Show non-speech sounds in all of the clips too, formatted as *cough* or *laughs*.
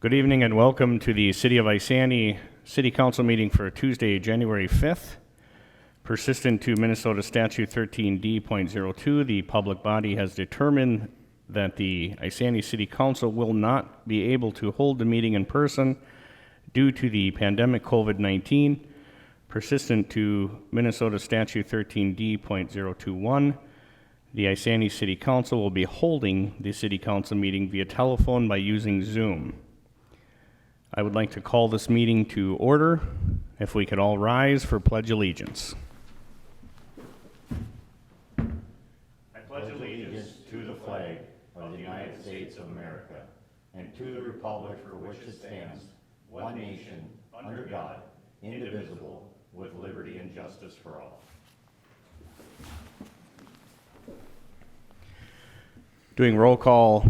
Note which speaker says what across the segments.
Speaker 1: Good evening and welcome to the City of Isani City Council meeting for Tuesday, January 5th. Persistent to Minnesota Statute 13D.02, the public body has determined that the Isani City Council will not be able to hold the meeting in person due to the pandemic COVID-19. Persistent to Minnesota Statute 13D.021, the Isani City Council will be holding the city council meeting via telephone by using Zoom. I would like to call this meeting to order. If we could all rise for pledge allegiance. Doing roll call,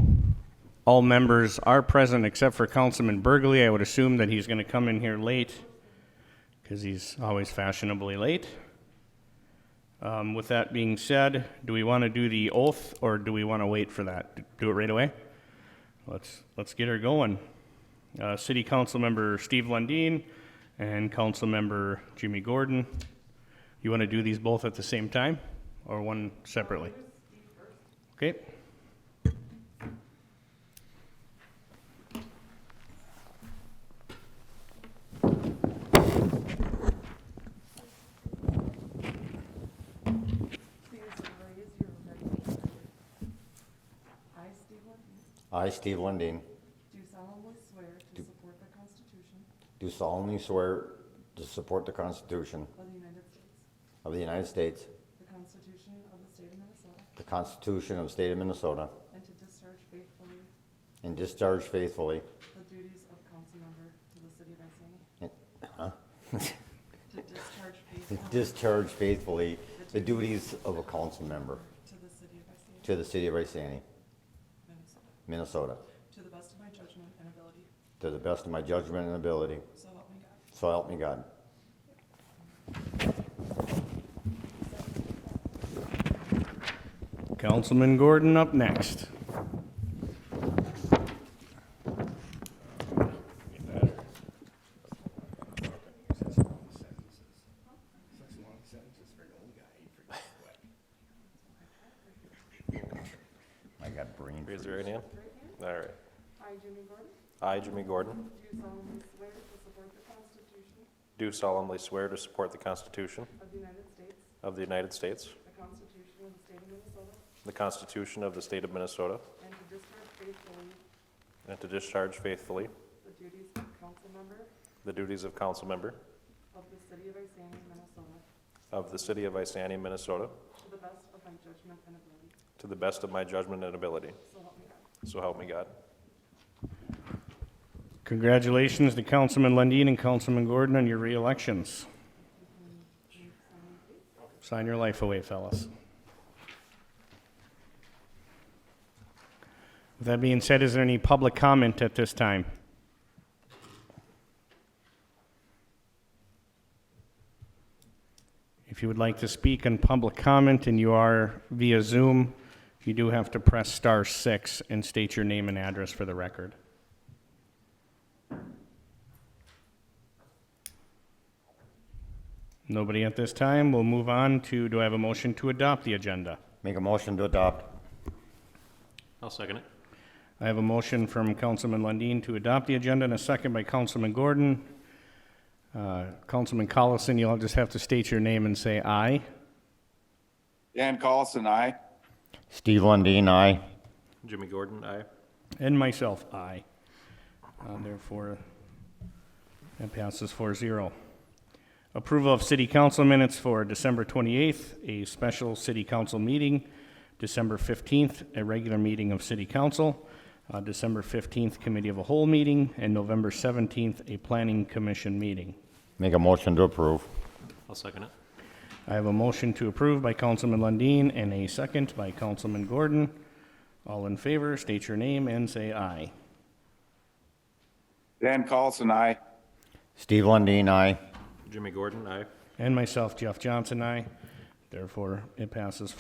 Speaker 1: all members are present except for Councilman Burgley. I would assume that he's going to come in here late because he's always fashionably late. Um, With that being said, do we want to do the oath or do we want to wait for that? Do it right away? Let's, let's get her going. Uh, City Council Member Steve Lundin and Council Member Jimmy Gordon. You want to do these both at the same time or one separately? Okay.
Speaker 2: I, Steve Levine,
Speaker 3: I, Steve Lundin,
Speaker 2: do solemnly swear to support the Constitution
Speaker 3: do solemnly swear to support the Constitution
Speaker 2: of the United States,
Speaker 3: of the United States,
Speaker 2: the Constitution of the State of Minnesota,
Speaker 3: the Constitution of the State of Minnesota,
Speaker 2: and to discharge faithfully
Speaker 3: and discharge faithfully *laughs*
Speaker 2: the duties of council member to the city of Isani.
Speaker 3: And-
Speaker 2: To discharge faithfully
Speaker 3: discharge faithfully the duties of a council member
Speaker 2: to the city of Isani,
Speaker 3: to the city of Isani,
Speaker 2: Minnesota,
Speaker 3: Minnesota,
Speaker 2: to the best of my judgment and ability,
Speaker 3: to the best of my judgment and ability.
Speaker 2: so help me God.
Speaker 3: So help me God.
Speaker 1: Councilman Gordon up next.
Speaker 3: I got brain
Speaker 4: Raise your right hand. All right.
Speaker 2: I, Jimmy Gordon,
Speaker 4: I, Jimmy Gordon,
Speaker 2: do solemnly swear to support the Constitution
Speaker 4: do solemnly swear to support the Constitution
Speaker 2: of the United States,
Speaker 4: of the United States,
Speaker 2: the Constitution of the State of Minnesota,
Speaker 4: the Constitution of the State of Minnesota,
Speaker 2: and to discharge faithfully
Speaker 4: and to discharge faithfully
Speaker 2: the duties of council member
Speaker 4: the duties of council member
Speaker 2: of the city of Isani, Minnesota,
Speaker 4: of the city of Isani, Minnesota,
Speaker 2: to the best of my judgment and ability.
Speaker 4: to the best of my judgment and ability.
Speaker 2: So help me God.
Speaker 4: So help me God.
Speaker 1: Congratulations to Councilman Lundin and Councilman Gordon on your re-elections. Sign your life away, fellas. With that being said, is there any public comment at this time? If you would like to speak in public comment and you are via Zoom, you do have to press star six and state your name and address for the record. Nobody at this time. We'll move on to, do I have a motion to adopt the agenda?
Speaker 3: Make a motion to adopt.
Speaker 4: I'll second it.
Speaker 1: I have a motion from Councilman Lundin to adopt the agenda and a second by Councilman Gordon. Uh, Councilman Collison, you'll just have to state your name and say aye.
Speaker 5: Dan Carlson, aye.
Speaker 3: Steve Lundin, aye.
Speaker 4: Jimmy Gordon, aye.
Speaker 1: And myself, aye. Uh, Therefore, that passes 4-0. Approval of city council minutes for December 28th, a special city council meeting, December 15th, a regular meeting of city council, uh, December 15th, committee of a whole meeting, and November 17th, a planning commission meeting.
Speaker 3: Make a motion to approve.
Speaker 4: I'll second it.
Speaker 1: I have a motion to approve by Councilman Lundin and a second by Councilman Gordon. All in favor, state your name and say aye.
Speaker 5: Dan Carlson, aye.
Speaker 3: Steve Lundin, aye.
Speaker 4: Jimmy Gordon, aye.
Speaker 1: And myself, Jeff Johnson, I. Therefore, it passes